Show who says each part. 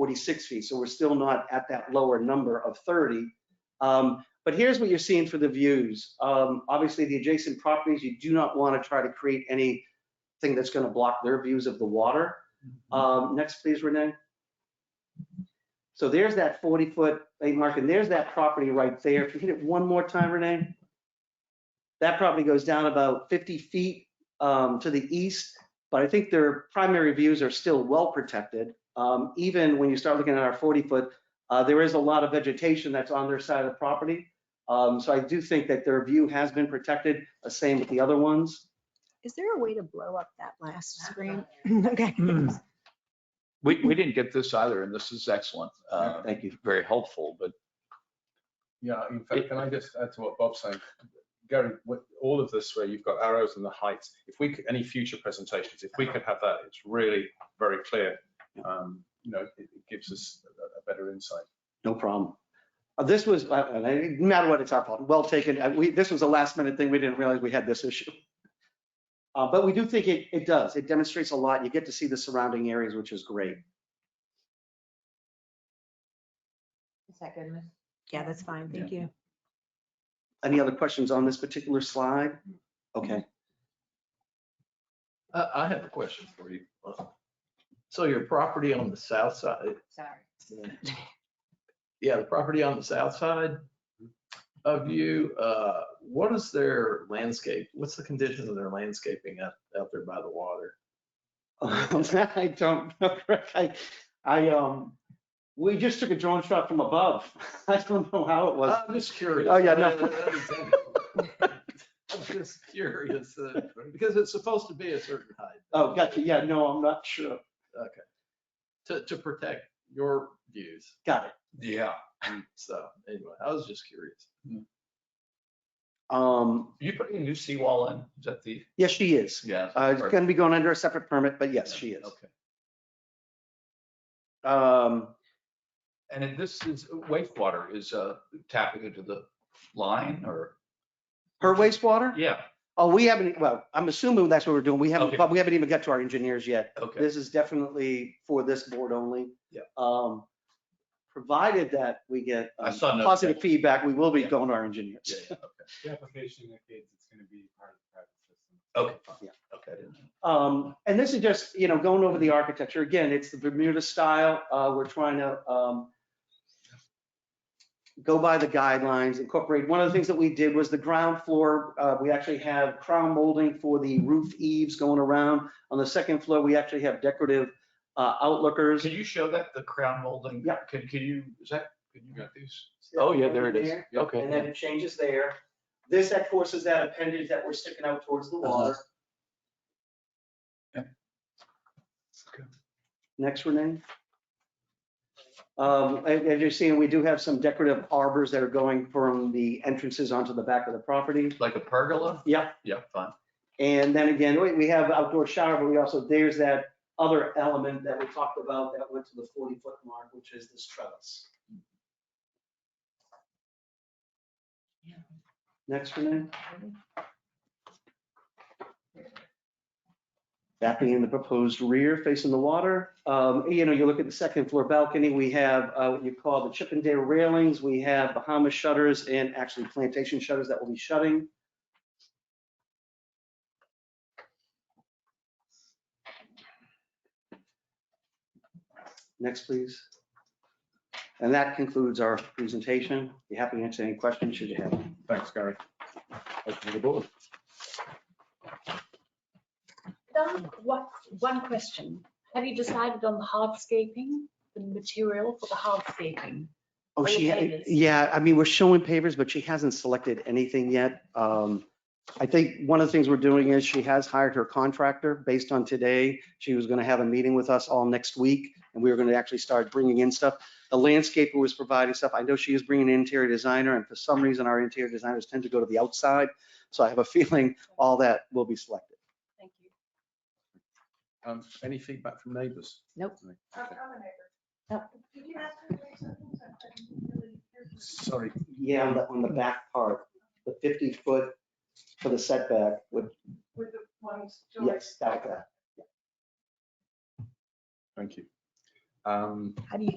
Speaker 1: 46 feet, so we're still not at that lower number of 30. Um, But here's what you're seeing for the views. Um, Obviously, the adjacent properties, you do not want to try to create anything that's going to block their views of the water. Um, Next, please, Renee. So there's that 40-foot eight mark, and there's that property right there. If you hit it one more time, Renee. That property goes down about 50 feet um, to the east, but I think their primary views are still well-protected. Um, Even when you start looking at our 40-foot, uh, there is a lot of vegetation that's on their side of the property. Um, So I do think that their view has been protected, the same with the other ones.
Speaker 2: Is there a way to blow up that last screen? Okay.
Speaker 3: We, we didn't get this either, and this is excellent. Uh,
Speaker 1: Mm-hmm. Thank you.
Speaker 3: Very helpful, but
Speaker 4: Yeah, in fact, can I just add to what Bob's saying? Gary, what- all of this where you've got arrows and the heights, if we, could any future presentations, if we could have that, it's really very clear. Um, You know, it it gives us a a better insight.
Speaker 1: No problem. Uh, This was, uh, and it- no matter what, it's our fault. Well taken. Uh, We, this was a last minute thing. We didn't realize we had this issue. Uh, But we do think it, it does. It demonstrates a lot. You get to see the surrounding areas, which is great.
Speaker 5: Is that good? Miss?
Speaker 2: Yeah, that's fine. Thank you.
Speaker 1: Any other questions on this particular slide? Okay.
Speaker 6: I, I have a question for you. So your property on the south side,
Speaker 5: Sorry.
Speaker 6: yeah, the property on the south side of you, uh, what is their landscape? What's the condition of their landscaping out, out there by the water?
Speaker 1: Um, I don't know, Greg. I, I, um, we just took a drone shot from above. I don't know how it
Speaker 3: Uh,
Speaker 1: was.
Speaker 6: I'm just curious.
Speaker 1: Oh, yeah, no.
Speaker 6: I'm just curious, uh, because it's supposed to be a certain height
Speaker 1: Oh, gotcha. Yeah, no, I'm not sure.
Speaker 6: to, to protect your views.
Speaker 1: Got it.
Speaker 3: yeah.
Speaker 6: So anyway, I was just curious.
Speaker 1: Um,
Speaker 3: You putting a new seawall in? Is that the?
Speaker 1: yes, she is.
Speaker 3: Yeah.
Speaker 1: Uh, it's gonna be going under a separate permit, but yes, she is.
Speaker 3: Okay.
Speaker 1: Um,
Speaker 3: And then this is wastewater is uh, tapping into the line or?
Speaker 1: her wastewater?
Speaker 3: Yeah,
Speaker 1: Oh, we haven't, well, I'm assuming that's what we're doing. We haven't,
Speaker 3: Okay.
Speaker 1: but we haven't even got to our engineers yet.
Speaker 3: okay.
Speaker 1: This is definitely for this board only.
Speaker 3: Yeah.
Speaker 1: Um, provided that we get
Speaker 3: I
Speaker 1: um,
Speaker 3: saw no-
Speaker 1: positive feedback, we will be
Speaker 3: Yeah.
Speaker 1: going to our engineers.
Speaker 3: Yeah, yeah,
Speaker 7: The application indicates it's gonna be part of the private system.
Speaker 3: Okay.
Speaker 1: Yeah.
Speaker 3: Okay. I didn't-
Speaker 1: Um, and this is just, you know, going over the architecture. Again, it's the Bermuda style. Uh, we're trying to, um, go by the guidelines, incorporate. One of the things that we did was the ground floor, uh, we actually have crown molding for the roof eaves going around. On the second floor, we actually have decorative, uh, outlookers.
Speaker 3: Can you show that, the crown molding?
Speaker 1: Yeah.
Speaker 3: Can, can you, is that, can you get these? Oh, yeah, there it is. Okay.
Speaker 1: And then it changes there. This, of course, is that appendage that we're sticking out towards the water. Next, Renee. Um, a- As you're seeing, we do have some decorative arbors that are going from the entrances onto the back of the property.
Speaker 3: Like a pergola?
Speaker 1: Yeah.
Speaker 3: Yeah, fine.
Speaker 1: And then again, we- we have outdoor shower, but we also, there's that other element that we talked about that went to the 40-foot mark, which is this trellis. Next, Renee. That being the proposed rear facing the water. Um, You know, you look at the second floor balcony, we have uh, what you call the Chippendale railings. We have Bahama shutters and actually plantation shutters that will be shutting. Next, please. And that concludes our presentation. Be happy to answer any questions should you have.
Speaker 4: Thanks, Gary. Open the board.
Speaker 8: Done. What, one question. Have you decided on the hardscaping, the material for the hardscaping?
Speaker 1: Oh,
Speaker 8: Or the
Speaker 1: she, ha-
Speaker 8: pavers.
Speaker 1: yeah, I mean, we're showing pavers, but she hasn't selected anything yet. Um, I think one of the things we're doing is she has hired her contractor based on today. She was going to have a meeting with us all next week and we were going to actually start bringing in stuff. The landscaper was providing stuff. I know she is bringing an interior designer and for some reason our interior designers tend to go to the outside. So I have a feeling all that will be selected.
Speaker 8: Thank you.
Speaker 4: Um, Any feedback from neighbours?
Speaker 2: Nope.
Speaker 4: Sorry,
Speaker 1: Yeah, on the, on the back part, the 50 foot for the setback would,
Speaker 9: With the ones.
Speaker 1: yes, that, that.
Speaker 4: thank you.
Speaker 10: Um,
Speaker 4: How do you